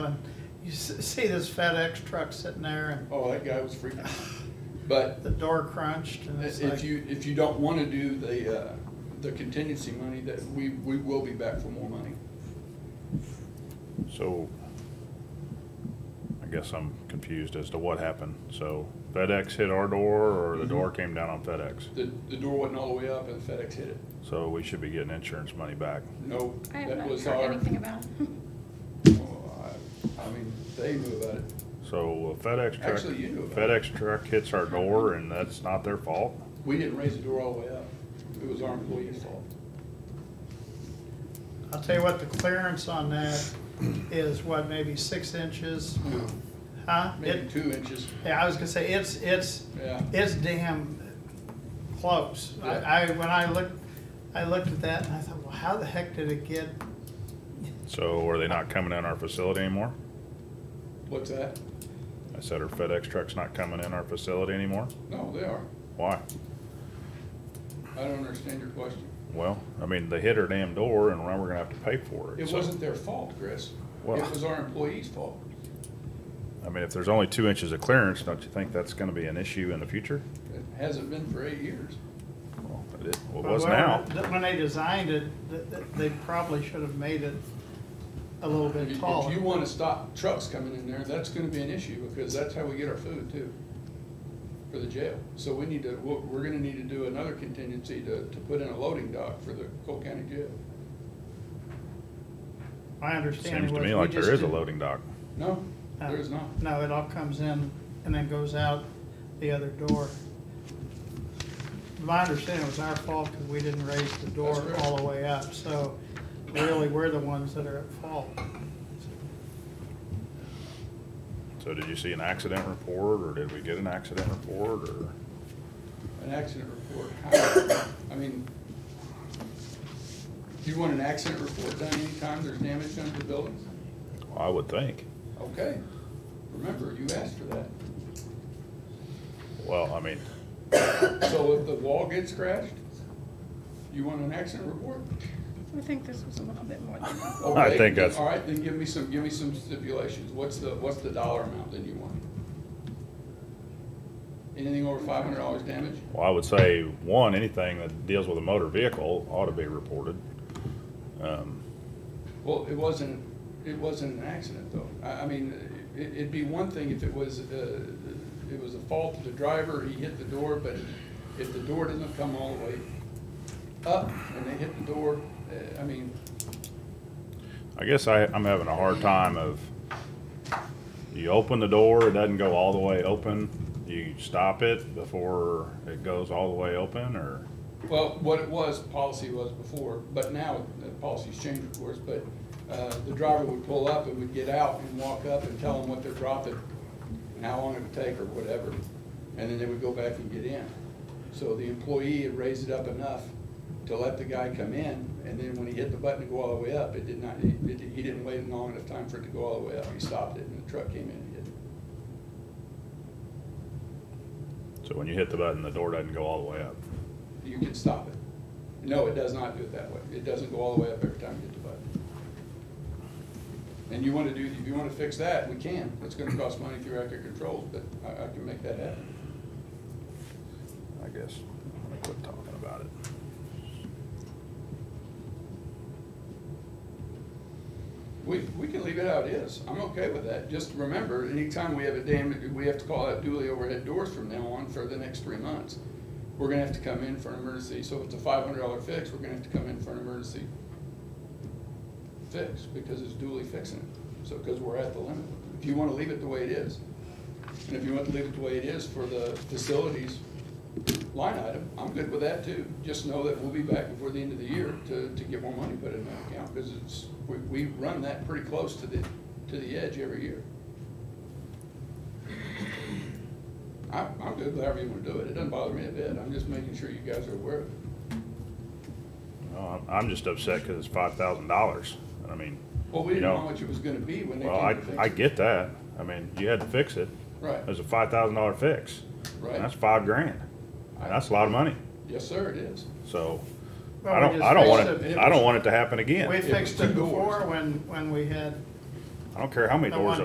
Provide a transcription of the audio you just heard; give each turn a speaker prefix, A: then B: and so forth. A: You s- see this FedEx truck sitting there and
B: Oh, that guy was freaking. But
A: the door crunched and it's
B: if
A: like,
B: you, if you don't wanna do the, uh, the contingency money, that we, we will be back for more money.
C: So I guess I'm confused as to what happened. So FedEx hit our door or
B: Mm-hmm.
C: the door came down on FedEx?
B: The, the door wasn't all the way up and FedEx hit it.
C: So we should be getting insurance money back.
B: No,
D: I have
B: that
D: not
B: was
D: heard
B: our,
D: anything about.
B: well, I, I mean, they knew about it.
C: So a FedEx truck,
B: Actually, you know about it.
C: FedEx truck hits our door and that's not their fault?
B: We didn't raise the door all the way up. It was our employees' fault.
A: I'll tell you what, the clearance on that is what, maybe six inches? Huh?
B: Maybe
A: It,
B: two inches,
A: yeah, I was gonna say, it's, it's,
B: yeah.
A: it's damn close. I, I, when I looked, I looked at that and I thought, well, how the heck did it get?
C: So are they not coming in our facility anymore?
B: What's that?
C: I said, our FedEx truck's not coming in our facility anymore?
B: No, they are.
C: Why?
B: I don't understand your question.
C: Well, I mean, they hit our damn door and now we're gonna have to pay for it.
B: It
C: so-
B: wasn't their fault, Chris.
C: Well-
B: It was our employees' fault.
C: I mean, if there's only two inches of clearance, don't you think that's gonna be an issue in the future?
B: It hasn't been for eight years.
C: Well, it is- well, it
A: Well,
C: was
A: when-
C: now.
A: When they designed it, th- th- they probably should have made it a little
B: If
A: bit
B: you-
A: taller.
B: If you wanna stop trucks coming in there, that's gonna be an issue, because that's how we get our food too, for the jail. So we need to, we're, we're gonna need to do another contingency to, to put in a loading dock for the Cole County Jail.
A: My understanding
C: Seems
A: was.
C: to me
A: we
C: like
A: just
C: there is a
A: didn't-
C: loading dock.
B: No,
A: Oh.
B: there is not.
A: Uh, No, it all comes in and then goes out the other door. My understanding it was our fault because we didn't raise the door
B: That's correct.
A: all the way up, so really, we're the ones that are at fault.
C: So did you see an accident report, or did we get an accident report, or?
B: An accident report, how, I mean, do you want an accident report done anytime there's damage done to the buildings?
C: I would think.
B: Okay, remember, you asked for that.
C: Well, I mean,
B: So if the wall gets crashed, you want an accident report?
D: I think this was a little bit more than that.
C: I
B: Okay,
C: think that's-
B: All right, then give me some, give me some stipulations. What's the, what's the dollar amount that you want? Anything over five hundred dollars damage?
C: well, I would say, one, anything that deals with a motor vehicle ought to be reported. Um,
B: Well, it wasn't, it wasn't an accident though. I, I mean, it, it'd be one thing if it was, uh, it was a fault of the driver, he hit the door, but if the door doesn't come all the way up and they hit the door, uh, I mean,
C: I guess I, I'm having a hard time of, you open the door, it doesn't go all the way open, you stop it before it goes all the way open, or?
B: Well, what it was, policy was before, but now the policy's changed, of course, but uh, the driver would pull up and would get out and walk up and tell them what they're dropping, and how long it would take or whatever, and then they would go back and get in. So the employee had raised it up enough to let the guy come in, and then when he hit the button to go all the way up, it did not, it- it- he didn't wait long enough time for it to go all the way up. He stopped it and the truck came in and hit it.
C: So when you hit the button, the door doesn't go all the way up.
B: You can stop it. No, it does not do it that way. It doesn't go all the way up every time you hit the button. And you wanna do, if you wanna fix that, we can. It's gonna cost money through active controls, but I, I can make that happen.
C: I guess, I'm gonna quit talking about it.
B: We, we can leave it how it is. I'm okay with that. Just remember, anytime we have a dam, we have to call out duly overhead doors from now on for the next three months. We're gonna have to come in for an emergency. So if it's a five hundred dollar fix, we're gonna have to come in for an emergency fix because it's duly fixing it. So, because we're at the limit. If you wanna leave it the way it is, and if you want to leave it the way it is for the facilities line item, I'm good with that too. Just know that we'll be back before the end of the year to, to get more money put in that account, because it's, we, we run that pretty close to the, to the edge every year. I, I'm good with however you wanna do it, it doesn't bother me a bit, I'm just making sure you guys are aware of it.
C: Well, I'm- I'm just upset because it's five thousand dollars. And I mean,
B: Well, we
C: You
B: didn't know
C: know-
B: how much it was gonna be when they
C: well,
B: came
C: I,
B: to fix it.
C: I get that. I mean, you had to fix it.
B: Right,
C: It was a five thousand dollar fix.
B: Right.
C: And that's five grand. And that's a lot of money.
B: yes, sir, it is.
C: So
A: Well,
C: I
A: we
C: don't,
A: just
C: I don't want
A: fixed
C: it, I don't want it to happen
A: We
C: again.
A: fixed it
B: two doors.
A: before when, when we had
C: I don't care how many
A: the
C: doors
A: one